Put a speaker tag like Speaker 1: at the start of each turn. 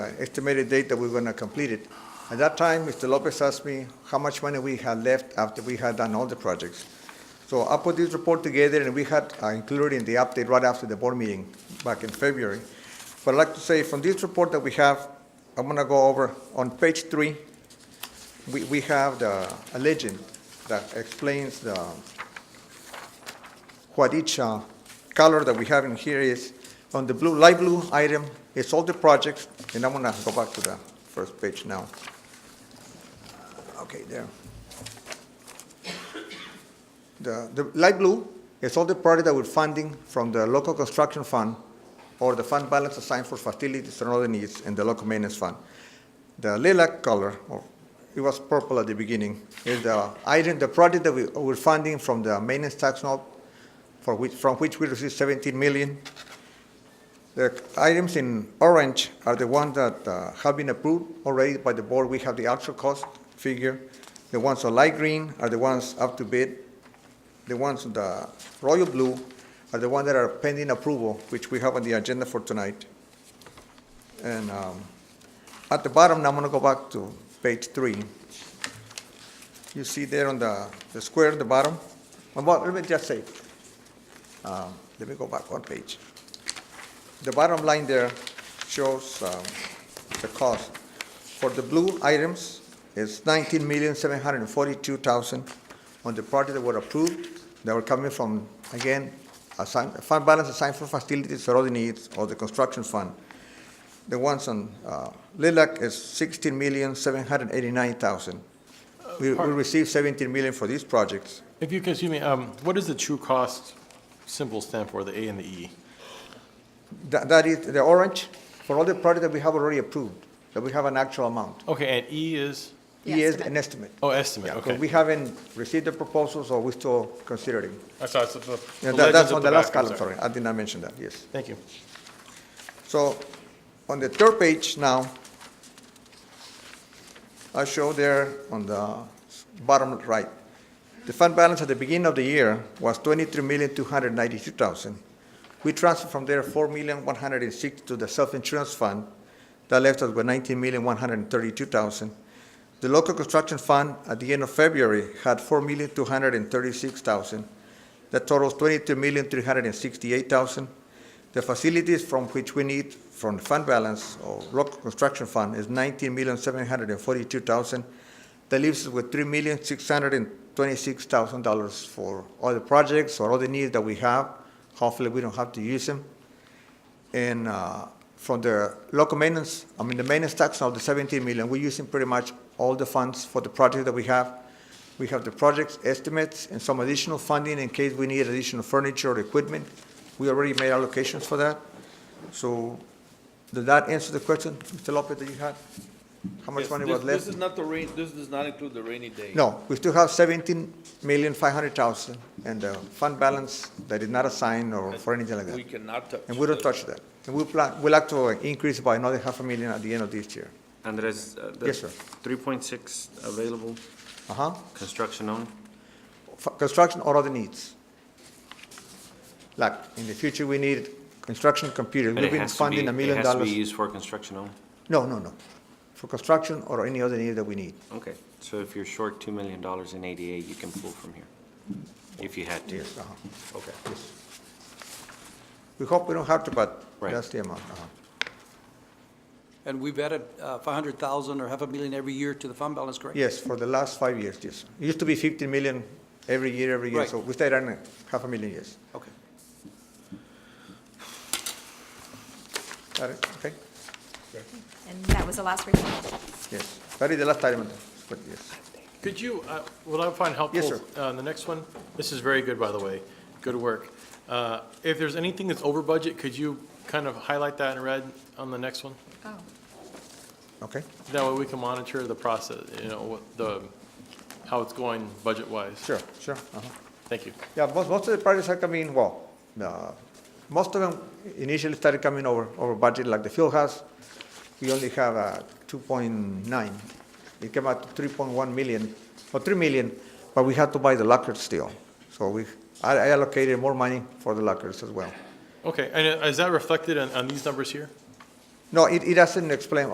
Speaker 1: uh, estimated date that we're gonna complete it. At that time, Mr. Lopez asked me how much money we had left after we had done all the projects. So I put this report together, and we had uh, included in the update right after the board meeting back in February. But I'd like to say, from this report that we have, I'm gonna go over, on page three, we, we have the, a legend that explains the, what each uh, color that we have in here is. On the blue, light blue item is all the projects, and I'm gonna go back to the first page now. Okay, there. The, the light blue is all the projects that we're funding from the local construction fund or the fund balance assigned for facilities and other needs in the local maintenance fund. The lilac color, or it was purple at the beginning, is the item, the project that we, we're funding from the maintenance tax note for which, from which we received seventeen million. The items in orange are the ones that uh, have been approved already by the board. We have the actual cost figure. The ones on light green are the ones up to bid. The ones on the royal blue are the ones that are pending approval, which we have on the agenda for tonight. And um, at the bottom, now I'm going to go back to page three. You see there on the the square at the bottom? Well, Let me just say, um, let me go back one page. The bottom line there shows um, the cost. For the blue items, it's nineteen million, seven hundred and forty-two thousand on the project that were approved, that were coming from, again, assign, fund balance assigned for facilities or other needs, or the construction fund. The ones on uh, lilac is sixteen million, seven hundred and eighty-nine thousand. We, we
Speaker 2: pardon.
Speaker 1: received seventeen million for these projects.
Speaker 2: If you can, excuse me, um, what does the true cost symbol stand for, the A and the E?
Speaker 1: That, that is, the orange, for all the projects that we have already approved, that we have an actual amount.
Speaker 2: Okay, and E is,
Speaker 3: The
Speaker 1: He is
Speaker 3: estimate.
Speaker 1: an estimate.
Speaker 2: oh, estimate,
Speaker 1: Yeah, 'cause we
Speaker 2: okay.
Speaker 1: haven't received the proposal, so we're still considering.
Speaker 2: I saw it's the- the
Speaker 1: Yeah, that-
Speaker 2: legend's
Speaker 1: That's
Speaker 2: at
Speaker 1: on the last
Speaker 2: back, I'm
Speaker 1: column, sorry, I did not mention that, yes.
Speaker 2: Thank you.
Speaker 1: So, on the third page now, I show there on the bottom right, the fund balance at the beginning of the year was twenty-three million, two hundred ninety-two thousand. We transferred from there four million, one hundred and six to the self-insurance fund. That left us with nineteen million, one hundred and thirty-two thousand. The local construction fund at the end of February had four million, two hundred and thirty-six thousand. That totals twenty-two million, three hundred and sixty-eight thousand. The facilities from which we need from the fund balance or local construction fund is nineteen million, seven hundred and forty-two thousand. That leaves us with three million, six hundred and twenty-six thousand dollars for other projects or other needs that we have. Hopefully, we don't have to use them. And uh, from the local maintenance, I mean, the maintenance tax of the 17 million, we're using pretty much all the funds for the project that we have. We have the projects estimates and some additional funding in case we need additional furniture or equipment. We already made allocations for that. So did that answer the question, Mr. Lopez, that you had? How much
Speaker 4: Yes,
Speaker 1: money
Speaker 4: this-
Speaker 1: was left?
Speaker 4: This is not the rain, this does not include the rainy day.
Speaker 1: No, we still have 17,500,000 and the fund balance that is not assigned or for anything like that.
Speaker 4: We cannot touch.
Speaker 1: And we don't
Speaker 4: the-
Speaker 1: touch that. And we plan, we like to increase by another half a million at the end of this year.
Speaker 5: Andres, uh, the
Speaker 1: Yes, sir.
Speaker 5: 3.6 available,
Speaker 1: Uh-huh.
Speaker 5: construction only?
Speaker 1: For Construction or other needs. Like, in the future, we need construction computers.
Speaker 5: But
Speaker 1: We've
Speaker 5: it
Speaker 1: been
Speaker 5: has to be-
Speaker 1: funding a million
Speaker 5: It has to be
Speaker 1: dollars.
Speaker 5: used for construction only?
Speaker 1: No, no, no. For construction or any other need that we need.
Speaker 5: Okay, so if you're short $2 million in ADA, you can pull from here, if you had to?
Speaker 1: Yes, uh-huh.
Speaker 5: Okay.
Speaker 1: Yes. We hope we don't have to, but
Speaker 5: Right.
Speaker 1: that's the amount. uh-huh.
Speaker 6: And we've added uh, 500,000 or half a million every year to the fund balance, correct?
Speaker 1: Yes, for the last five years, yes. It used to be 15 million every year, every year.
Speaker 6: Right.
Speaker 1: So we stayed on a half a million, yes.
Speaker 6: Okay.
Speaker 1: Got it? Okay?
Speaker 3: And that was the last report.
Speaker 1: Yes, that is the last item, but yes.
Speaker 2: Could you, uh, what I find helpful.
Speaker 1: Yes, sir.
Speaker 2: uh, The next one, this is very good, by the way, good work. Uh, If there's anything that's over budget, could you kind of highlight that in red on the next one?
Speaker 3: Oh,
Speaker 1: Okay,
Speaker 2: That way we can monitor the process, you know, what the, how it's going budget-wise.
Speaker 1: sure, sure. uh-huh.
Speaker 2: Thank you.
Speaker 1: Yeah, most, most of the projects are coming, well, uh, most of them initially started coming over, over budget, like the field house. We only have uh, 2.9. It came out to 3.1 million, or 3 million, but we had to buy the lockers still. So we, I I allocated more money for the lockers as well.
Speaker 2: Okay, and uh, is that reflected on, on these numbers here?
Speaker 1: No, it, it doesn't explain